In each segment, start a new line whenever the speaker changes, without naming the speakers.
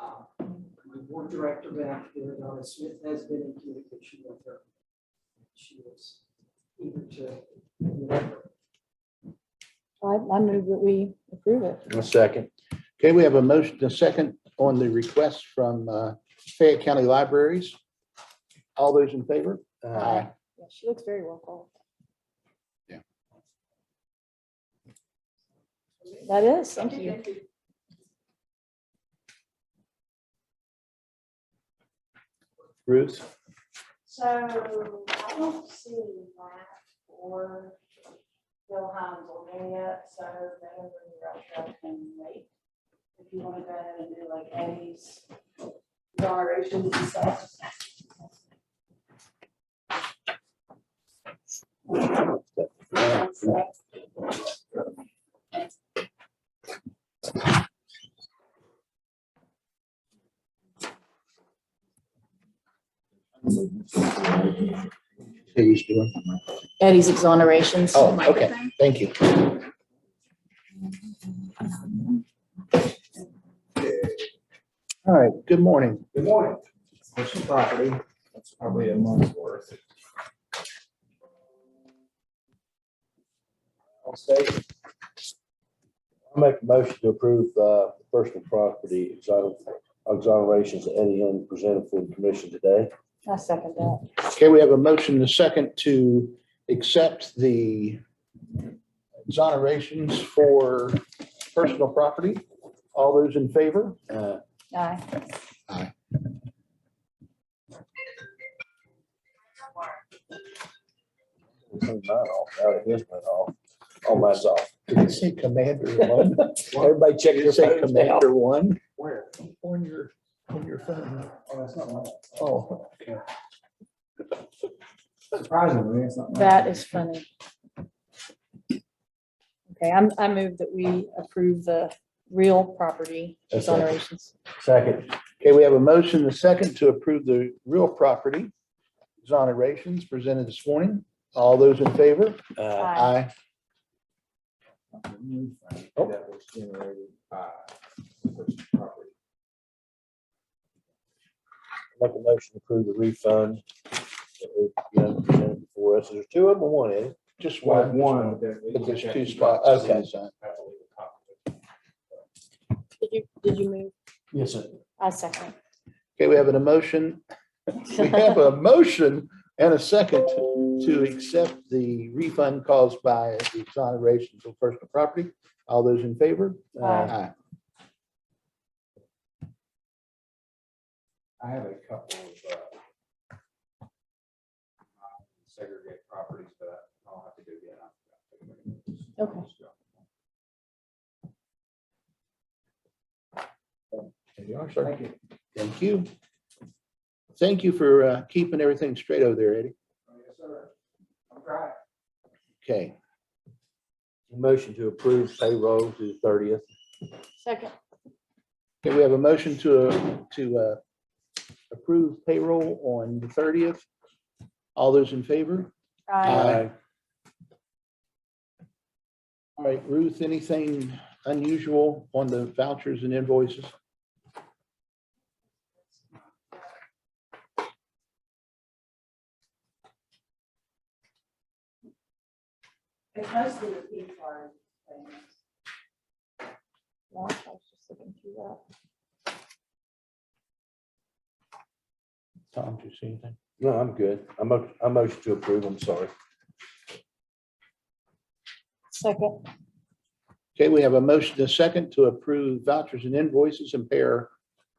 Um, board director back there, Donna Smith has been in communication with her. She is eager to.
I, I move that we approve it.
A second. Okay, we have a motion, and a second on the request from uh, Fayette County Libraries. All those in favor?
Uh,
Aye. Yeah, She looks very well qualified. That is, thank you.
Ruth?
So I don't see Matt or Bill Hines on there yet, so that would be rough up and late. If you want to go ahead and do like Eddie's generations and stuff.
Who's doing?
Eddie's exonerations.
Oh, okay, thank you. All right, good morning.
Good morning. What's your property? That's probably a month's worth. I'll say,
I make a motion to approve uh, personal property exoner- exonerations that Eddie Young presented for the commission today.
I second that.
Okay, we have a motion, and a second to accept the exonerations for personal property. All those in favor?
Uh,
Aye.
we'll turn mine off. Now it is mine off. All mine's off.
Did it say Commander One?
Everybody check
Did it
your
say
phones now.
Commander One
where?
on your, on your phone?
Oh, that's not mine.
Oh,
Surprisingly, it's not mine.
That is funny. Okay, I'm, I move that we approve the real property
That's it.
exonerations.
Second,
okay, we have a motion, and a second to approve the real property exonerations presented this morning. All those in favor?
uh,
Aye.
Aye.
The new fund That was generated by the person's property.
make a motion to approve the refund that Eddie Young presented before us. There's two of them, or one Eddie?
Just
Well,
one.
one. that-
But there's two spots. Okay.
I believe a copy.
Did you, did you move?
Yes, sir.
I second.
Okay, we have an emotion. We have a motion and a second to accept the refund caused by the exoneration of personal property. All those in favor?
Aye.
I have a couple of uh, segregated properties, but I'll have to do that.
Okay.
There you are, sir.
Thank you.
Thank you. Thank you for uh, keeping everything straight over there, Eddie.
Yes, sir. I'm trying.
Okay,
Motion to approve payroll to the thirtieth.
Second.
Okay. we have a motion to, uh, to uh, approve payroll on the thirtieth. All those in favor?
Aye.
All right, Ruth, anything unusual on the vouchers and invoices?
It's mostly the P card things.
Yeah, I was just looking through that.
Tom, do you see anything?
No, I'm good. I'm, mo- I motion to approve. I'm sorry.
Second.
Okay, we have a motion to second to approve vouchers and invoices and pay our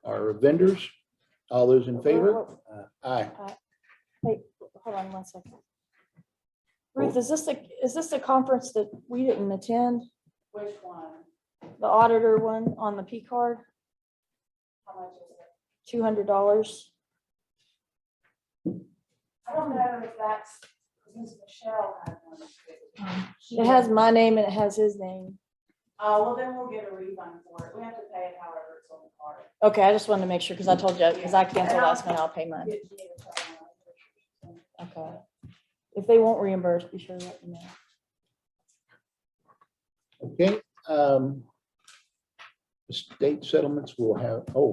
our vendors. All those in favor?
Whoa,
Aye.
whoa, Hold on one second. Ruth, is this the, is this the conference that we didn't attend?
Which one?
The auditor one on the P card,
How much is it?
two hundred dollars?
I don't know if that's, because Michelle had one. too.
It has my name and it has his name.
Uh, well, then we'll get a refund for it. We have to pay it however it's on the card.
Okay, I just wanted to make sure, because I told you, because I canceled last minute, I'll pay mine.
Get you to tell them.
Okay. If they won't reimburse, be sure to let me know.
Okay. um, State settlements will have, oh,